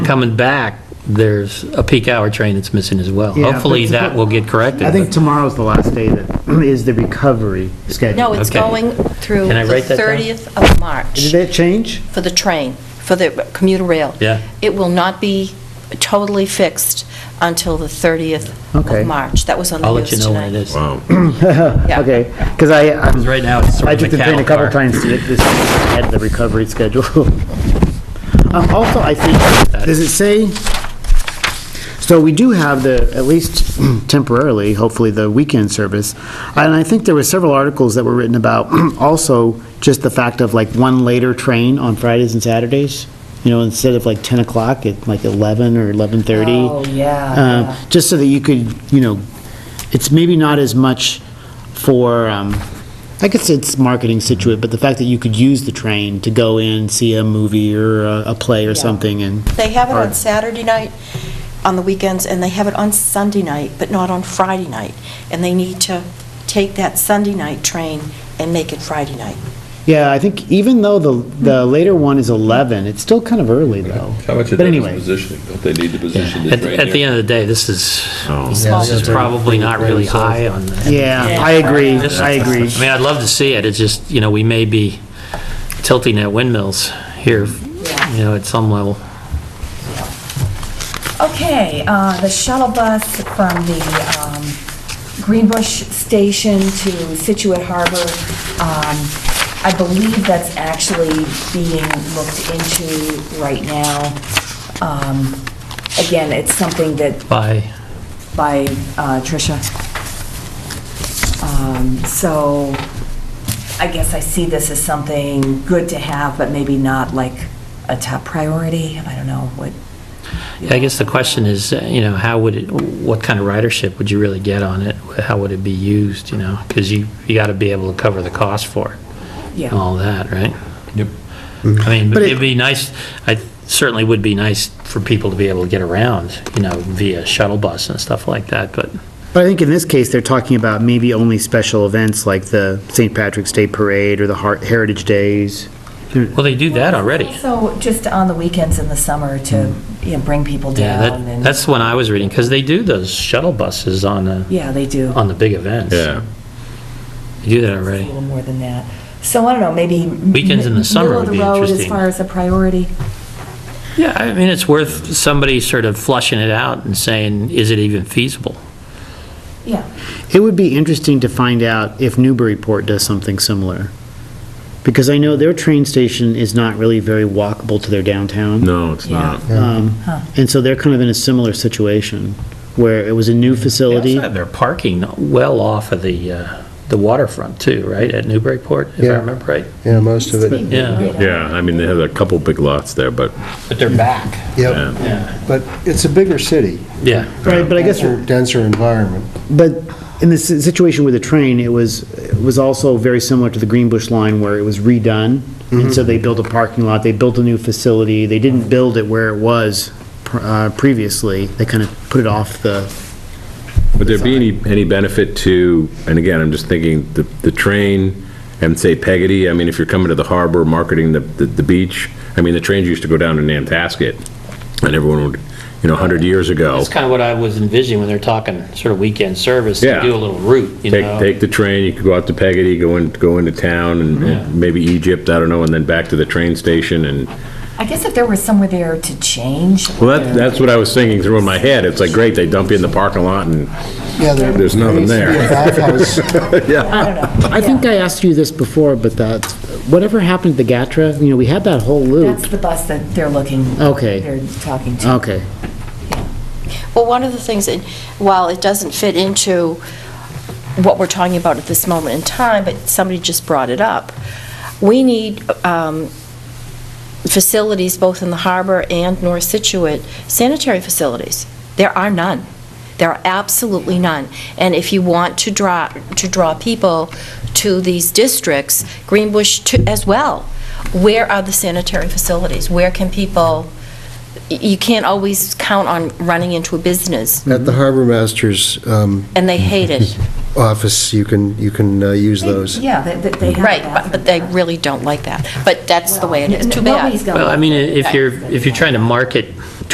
coming back, there's a peak hour train that's missing as well. Yeah, Hopefully, but- that will get corrected. I think tomorrow's the last day that is the recovery schedule. No, it's Okay. going through Can I the write that down? 30th of March Did that change? for the train, for the commuter rail. Yeah. It will not be totally fixed until the 30th Okay. of March. That was on I'll the news let you tonight. know when it is. Wow. Yeah. Okay, because I, Because I'm- right now, it's sort I of a took the train a cattle couple car. times to get this, had the recovery schedule. Um, Also, I think, does it say, so we do have the, at least temporarily, hopefully, the weekend service. And I think there were several articles that were written about also just the fact of like one later train on Fridays and Saturdays. You know, instead of like 10 o'clock, at like 11 or 11:30. Oh, yeah, Uh, yeah. Just so that you could, you know, it's maybe not as much for, um, I guess it's marketing situate, but the fact that you could use the train to go in, see a movie or a a play or Yeah. something and. They have it Or- on Saturday night, on the weekends, and they have it on Sunday night, but not on Friday night. And they need to take that Sunday night train and make it Friday night. Yeah, I think even though the, the later one is 11, it's still kind of early though. How much But of that is anyway. positioning? Don't they need to position the At, train at the here? end of the day, this is, Oh. this is probably not really high on the Yeah, I agree, I agree. I mean, I'd love to see it, it's just, you know, we may be tilting at windmills here, you know, at some level. Okay, uh, the shuttle bus from the um, Greenbush Station to Situate Harbor, um, I believe that's actually being looked into right now. Um, Again, it's something that By, by uh, Tricia. Um, So I guess I see this as something good to have, but maybe not like a top priority. I don't know what. I guess the question is, uh, you know, how would it, what kind of ridership would you really get on it? How would it be used, you know? Because you, you got to be able to cover the cost for it and Yeah, all that, right? Yep. I mean, But it- it'd be nice, I certainly would be nice for people to be able to get around, you know, via shuttle bus and stuff like that, but But I think in this case, they're talking about maybe only special events like the St. Patrick's Day Parade or the Har- Heritage Days. Well, they do that already. So just on the weekends in the summer to, you know, bring people Hmm. Yeah, down that, and. that's the one I was reading, because they do those shuttle buses on the, Yeah, they do. on the big events. Yeah. They do that A already. little more than that. So I don't know, maybe. Weekends in the summer middle of would the be road interesting. As far as a priority. Yeah, I mean, it's worth somebody sort of flushing it out and saying, is it even feasible? Yeah, It would be interesting to find out if Newburyport does something similar. Because I know their train station is not really very walkable to their downtown. No, it's Yeah. not. Um, And so they're kind of in a similar situation, where it was a They new also facility. have their parking well off of the, uh, the waterfront too, right, at Newburyport, if I Yeah. remember right? Yeah, most of it. Yeah, Yeah, I mean, they have a couple big lots there, but, but they're back. Yep, yeah. but it's a bigger city, Yeah. Right, but I guess, denser denser environment. but in the si- situation with the train, it was, it was also very similar to the Greenbush line where it was redone. And so they built a parking lot, they built a new facility, they didn't build it where it was pr- uh, previously. They kind of put it off the, Would there be any, any benefit to, and again, I'm just thinking, the, the train and say Peggotty, I mean, if you're coming to the harbor, marketing the, the the beach, I mean, the trains used to go down to Nantasket, and everyone would, you know, 100 years ago, That's kind of what I was envisioning when they're talking sort of weekend service, to Yeah. do a little route, you know? take, take the train, you could go out to Peggotty, go in, go into town, and- Yeah. and maybe Egypt, I don't know, and then back to the train station, and I guess if there was somewhere there to change. Well, that, that's what I was thinking through in my head. It's like, great, they dump you in the parking lot and, Yeah, there- There's nothing There used to be a bathhouse yeah. I think I asked you this before, but that, whatever happened to the Gatra, you know, we had that whole That's loop. the bus that they're looking. Okay. They're talking to. Okay. Well, one of the things, that- while it doesn't fit into what we're talking about at this moment in time, but somebody just brought it up, we need um, facilities both in the harbor and North Situate, sanitary facilities. There are none. There are absolutely none. And if you want to draw, to draw people to these districts, Greenbush too- as well, where are the sanitary facilities? Where can people, y- you can't always count on running into a business, at the Harbor Master's um, and they hate it. office, you can, you can uh, use those. Yeah, they, they- they have. a Right, but- but they bathroom. really don't like that. But that's the way it is. Too Nobody's bad. gonna Well, I mean, like that. if you're, if you're trying to market